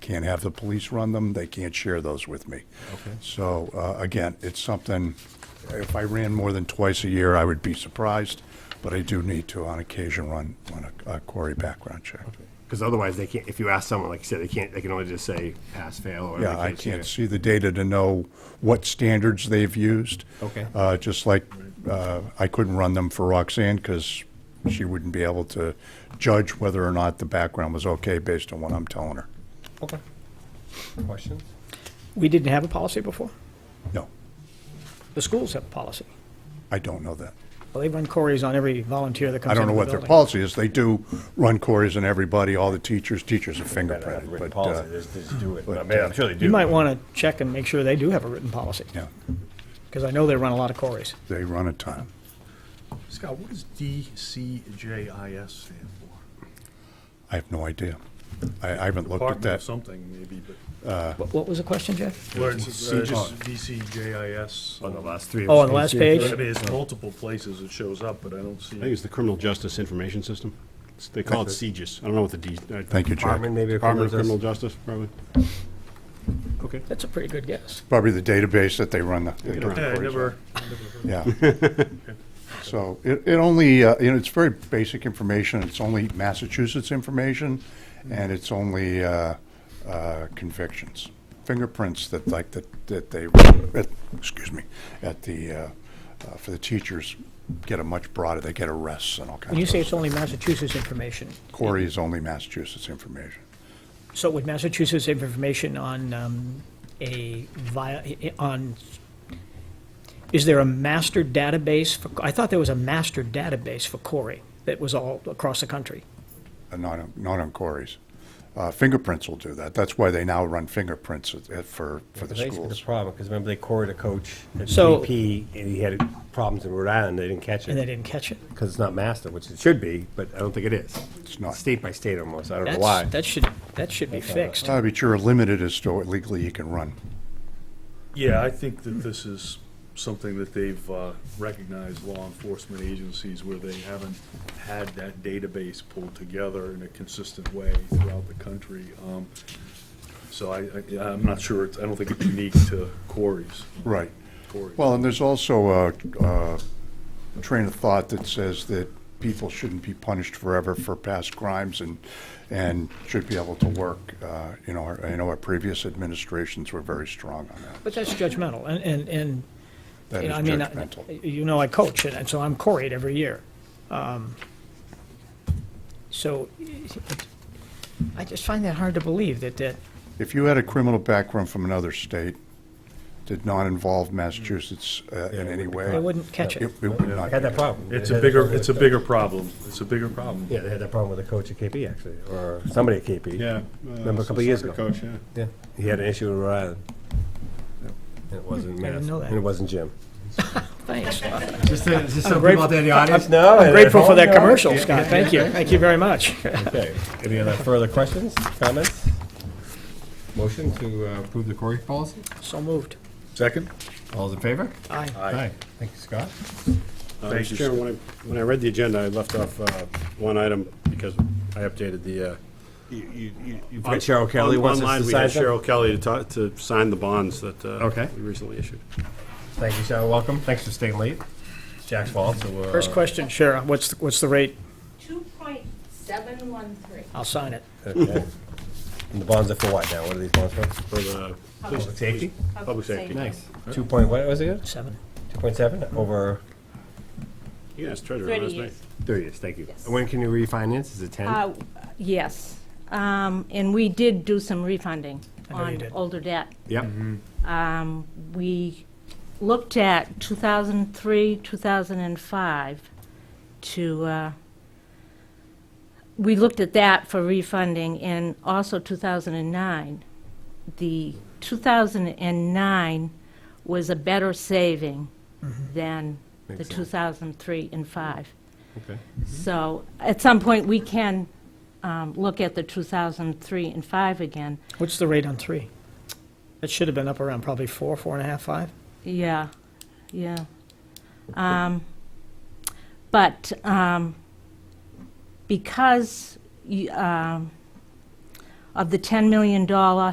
can't have the police run them, they can't share those with me. Okay. So, uh, again, it's something, if I ran more than twice a year, I would be surprised, but I do need to on occasion run, run a a query background check. Because otherwise, they can't, if you ask someone, like you said, they can't, they can only just say pass, fail, or. Yeah, they I see can't it. see the data to know what standards they've used. Okay. Uh, Just like, uh, I couldn't run them for Roxanne because she wouldn't be able to judge whether or not the background was okay based on what I'm telling her. Okay. Questions? We didn't have a policy before. No, The schools have a policy. I don't know that. Well, they run queries on every volunteer that comes I into don't the know what building. their policy is. They do run queries on everybody, all the teachers, teachers are Gotta have fingerprinted, written but, policy, uh, just, just do it. but, I mean, I'm sure they do. You might want to check and make sure they do have a written policy, yeah, because I know they run a lot of queries. they run a ton. Scott, what does DCJIS stand for? I have no idea. I I haven't looked at Department of that. something, maybe, but. Uh. What what was the question, Jeff? Where it's, uh, just DCJIS. On the last three. Oh, on the last I page? mean, it's multiple places it shows up, but I don't see. I think it's the Criminal Justice Information System. It's- They call it CJIS. I don't know what the D. uh, Thank you, Jack. Department, maybe. Department of Criminal Justice, probably. Okay. That's a pretty good guess. Probably the database that they run the- they Yeah. run the Yeah, I queries on. never, Yeah. So it, it only, uh, you know, it's very basic information. It's only Massachusetts information, and it's only uh, uh, convictions, fingerprints that like that that they, at- excuse me, at the uh, uh, for the teachers get a much broader. They get arrests and all kinds. When you of say those. it's only Massachusetts information, Corey is only Massachusetts information. so would Massachusetts have information on um, a, via- i- on, is there a master database? for? I thought there was a master database for query that was all across the country. Uh, not on, not on Corey's. Uh, fingerprints will do that. That's why they now run fingerprints at, at, for for the Basically, the schools. problem, because remember they cored a coach at So- BP, and he had problems in Rhode Island, they didn't catch And they it, didn't catch it. because it's not master, which it should be, but I don't think it is. It's not. State by state almost, I don't know why. That's, that should, that should be fixed. Uh, but you're limited as to what legally you can run. yeah, I think that this is something that they've uh, recognized law enforcement agencies where they haven't had that database pulled together in a consistent way throughout the country. Um, So I, I- yeah, I'm not sure, it's- I don't think it's unique to quarries. Right. Quarries. Well, and there's also a, a train of thought that says that people shouldn't be punished forever for past crimes and, and should be able to work. Uh, you know, our, I know our previous administrations were very strong on that. But that's judgmental, and, and, and, That you is know, I mean, I- judgmental. you know, I coach, and and so I'm quarried every year. Um, So, I just find that hard to believe that, that, If you had a criminal background from another state, did not involve Massachusetts uh, in any way. I wouldn't catch it. It it would not. They had that problem. It's They a had bigger, that it's a problem with bigger problem. It's a bigger problem. the- Yeah, they had that problem with a coach at KP, actually, or somebody at KP. uh, Yeah. Remember a couple years ago? Coach, yeah. Yeah, he had an issue in Rhode Island. And it wasn't I didn't master, know that. and it wasn't Jim. Thanks. Just some grateful- out there in the audience I'm grateful for that commercial, Scott, thank you, thank you very much. Okay, any other further questions, comments? Motion to uh, approve the Corey policy? So moved. Second? All's in favor? Aye. Aye. Thank you, Scott. Uh, Thank you, Mr. Chairman, when I, when I read the agenda, I left off uh, one item because I updated the. uh, you- you- you- you've On got- Cheryl Kelly on- wants us Online, to we had sign Cheryl Kelly to ta- to sign the bonds that uh, Okay. we recently issued. Thank you, Cheryl, welcome. Thanks for staying late. It's Jack's fault, so uh, we're. First question, Shara, what's, the- what's the rate? 2.713. I'll sign it. Okay. And the bonds are for what now? What are these bonds for? For the Public safety? public safety. Nice. Two point, what was it? again? Seven. Two point seven over? You can ask Treasurer Thirty last night. years. Thirty years, thank you. Yes. When can you refinance? Is it ten? Uh, Yes, Um, and we did do some refunding I know you on did. older debt. Yep. We looked at 2003, 2005 to, uh, we looked at that for refunding, and also 2009. The 2009 was a better saving than the 2003 and 5. Okay. So at some point, we can um, look at the 2003 and 5 again. What's the rate on three? That should have been up around probably four, four and a half, five? Yeah, yeah. Um, But um, because you, um, of the $10 million